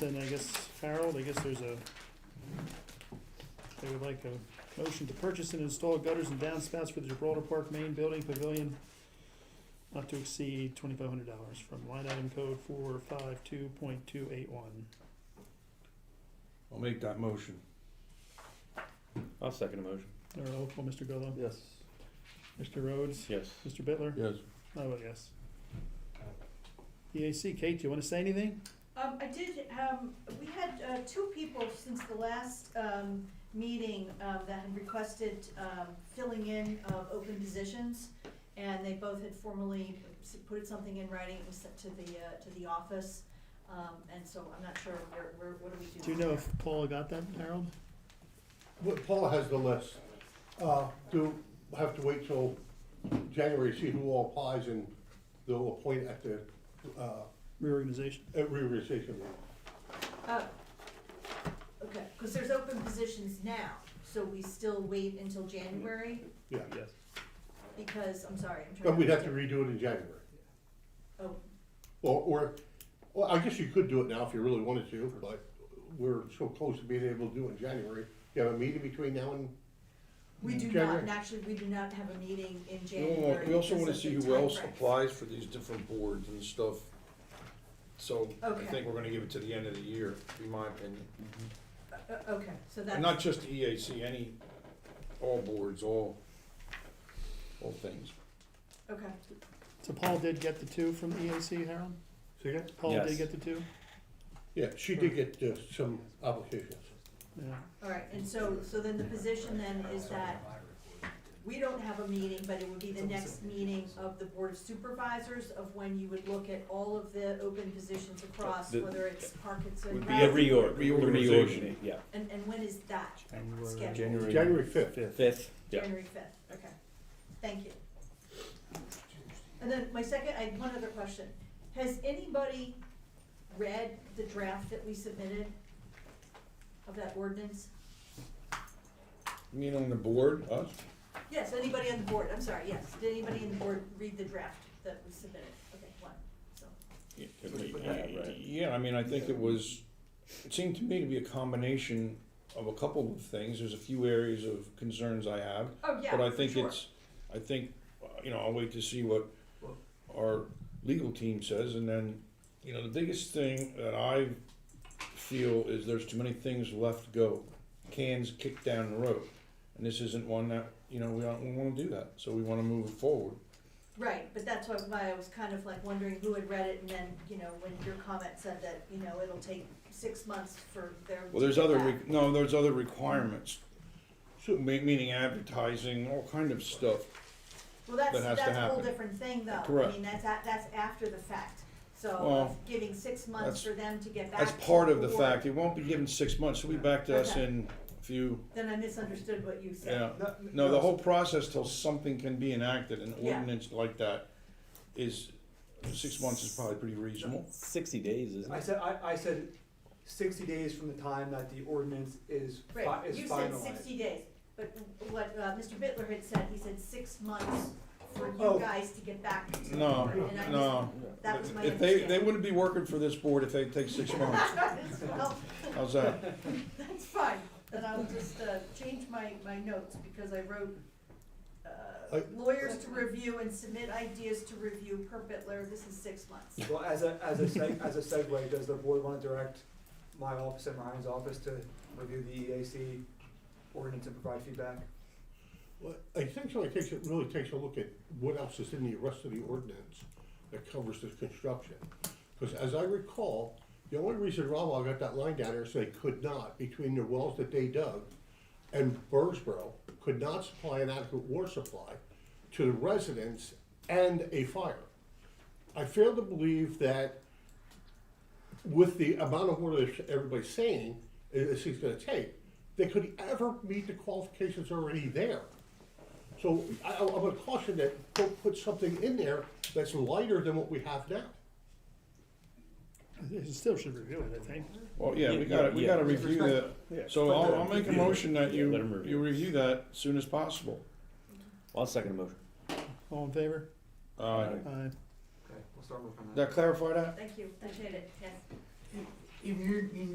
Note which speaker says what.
Speaker 1: Then I guess Harold, I guess there's a, they would like a motion to purchase and install gutters and downspouts for the Gibraltar Park main building pavilion not to exceed twenty-five hundred dollars from line item code four five two point two eight one.
Speaker 2: I'll make that motion.
Speaker 3: I'll second the motion.
Speaker 1: Or roll call, Mr. Golo,
Speaker 2: Yes.
Speaker 1: Mr. Rhodes,
Speaker 3: Yes.
Speaker 1: Mr. Bitler,
Speaker 2: Yes.
Speaker 1: I vote yes. EAC, Kate, do you wanna say anything?
Speaker 4: Um, I did, um, we had, uh, two people since the last, um, meeting, um, that had requested, um, filling in of open positions. And they both had formally s- put something in writing, it was sent to the, uh, to the office, um, and so I'm not sure where, where, what do we do?
Speaker 1: Do you know if Paula got that, Harold?
Speaker 5: Well, Paula has the list. Uh, Do, have to wait till January, to see who all applies and they'll appoint at the, uh,
Speaker 1: Reorganization?
Speaker 5: at reorganization. meeting.
Speaker 4: Uh, Okay, cause there's open positions now, so we still wait until January,
Speaker 5: Yeah,
Speaker 3: Yes.
Speaker 4: because, I'm sorry, I'm trying to.
Speaker 5: but we'd have to redo it in January.
Speaker 4: Oh,
Speaker 5: Or, or, well, I guess you could do it now if you really wanted to, but we're so close to being able to do it in January. You have a meeting between now and,
Speaker 4: We do not,
Speaker 5: January.
Speaker 4: and actually, we do not have a meeting in
Speaker 2: We want-
Speaker 4: January.
Speaker 2: we also wanna
Speaker 4: because of
Speaker 2: see
Speaker 4: the
Speaker 2: who else
Speaker 4: timeframe.
Speaker 2: applies for these different boards and stuff. So I
Speaker 4: Okay.
Speaker 2: think we're gonna give it to the end of the year, in my opinion.
Speaker 4: Uh, uh, Okay, so
Speaker 2: And
Speaker 4: that's,
Speaker 2: not just the EAC, any, all boards, all, all things.
Speaker 4: okay,
Speaker 1: So Paul did get the two from EAC, Harold?
Speaker 5: see again?
Speaker 1: Paula did
Speaker 3: Yes.
Speaker 1: get the two?
Speaker 5: Yeah, she did get uh, some applications.
Speaker 1: Yeah.
Speaker 4: all right, and so, so then the position then is that we don't have a meeting, but it would be the next meeting of the Board of Supervisors of when you would look at all of the open positions across,
Speaker 3: The-
Speaker 4: whether it's Parkinson.
Speaker 2: Would be
Speaker 3: Yeah,
Speaker 4: Rec-
Speaker 3: reorg.
Speaker 2: Reorganization.
Speaker 3: Yeah.
Speaker 4: And, and when is that scheduled?
Speaker 5: January fifth.
Speaker 3: Fifth. Yeah.
Speaker 4: January fifth, okay, thank you. And then my second, I had one other question, has anybody read the draft that we submitted of that ordinance?
Speaker 2: You mean on the board, us?
Speaker 4: Yes, anybody on the board, I'm sorry, yes, did anybody on the board read the draft that we submitted? Okay, one, so,
Speaker 3: Yeah,
Speaker 2: Yeah, I mean, I think it was, it seemed to me to be a combination of a couple of things. There's a few areas of concerns I have.
Speaker 4: oh, yeah,
Speaker 2: But I think
Speaker 4: sure.
Speaker 2: it's, I think, uh, you know, I'll wait to see what our legal team says, and then, you know, the biggest thing that I feel is there's too many things left to go, cans kicked down the road. And this isn't one that, you know, we don't, we wanna do that, so we wanna move it forward.
Speaker 4: Right, but that's what- why I was kind of like wondering who had read it, and then, you know, when your comment said that, you know, it'll take six months for their.
Speaker 2: Well, there's other,
Speaker 4: back.
Speaker 2: re- no, there's other requirements, so, ma- meaning advertising, all kind of stuff.
Speaker 4: Well, that's,
Speaker 2: that has to
Speaker 4: that's a whole
Speaker 2: happen.
Speaker 4: different thing though, I
Speaker 2: Correct.
Speaker 4: mean, that's, a- that's after the fact, so
Speaker 2: Well,
Speaker 4: giving six months
Speaker 2: that's-
Speaker 4: for them to get back.
Speaker 2: That's
Speaker 4: to
Speaker 2: part of the
Speaker 4: board.
Speaker 2: fact, it won't be given six months, it'll be back to us
Speaker 4: Okay.
Speaker 2: in a few,
Speaker 4: Then I misunderstood what you said.
Speaker 2: yeah. No, the whole process till something can be enacted, an
Speaker 4: Yeah.
Speaker 2: ordinance like that is, six months is probably pretty reasonable.
Speaker 3: Sixty days, isn't
Speaker 6: I
Speaker 3: it?
Speaker 6: said, I, I said sixty days from the time that the ordinance is fi-
Speaker 4: Right,
Speaker 6: is
Speaker 4: you said
Speaker 6: finalized.
Speaker 4: sixty days, but what, uh, Mr. Bitler had said, he said six months for you
Speaker 6: Oh.
Speaker 4: guys to get back to.
Speaker 2: No,
Speaker 4: And I
Speaker 2: no.
Speaker 4: That was my
Speaker 2: If they, they
Speaker 4: understanding.
Speaker 2: wouldn't be working for this board if they take six months.
Speaker 4: Well,
Speaker 2: How's that?
Speaker 4: That's fine, then I'll just, uh, change my, my notes, because I wrote, uh,
Speaker 5: I-
Speaker 4: lawyers to review and submit ideas to review per Bitler, this is six months.
Speaker 6: Well, as a, as a seg, as a segue, does the board wanna direct my office and Ryan's office to review the EAC ordinance and provide feedback?
Speaker 5: Well, I think so, I think it really takes a look at what else is in the rest of the ordinance that covers this construction. Because as I recall, the only reason Rawa got that line down there is they could not, between the wells that they dug and Burrsboro, could not supply an adequate water supply to the residents and a fire. I fail to believe that with the amount of water that everybody's saying it- it's going to take, they could ever meet the qualifications already there. So I, I would caution that don't put something in there that's lighter than what we have now.
Speaker 1: They still should review it, I think.
Speaker 2: Well, yeah, we gotta, we gotta review the,
Speaker 3: Yeah.
Speaker 2: so I'll, I'll make a motion that you,
Speaker 3: Let 'em review.
Speaker 2: you review that as soon as possible.
Speaker 3: I'll second the motion.
Speaker 1: All in favor?
Speaker 2: Uh,
Speaker 1: Aye.
Speaker 6: Okay, we'll start working on
Speaker 2: that clarify that?
Speaker 4: Thank you, appreciate it, yes.
Speaker 7: in your, in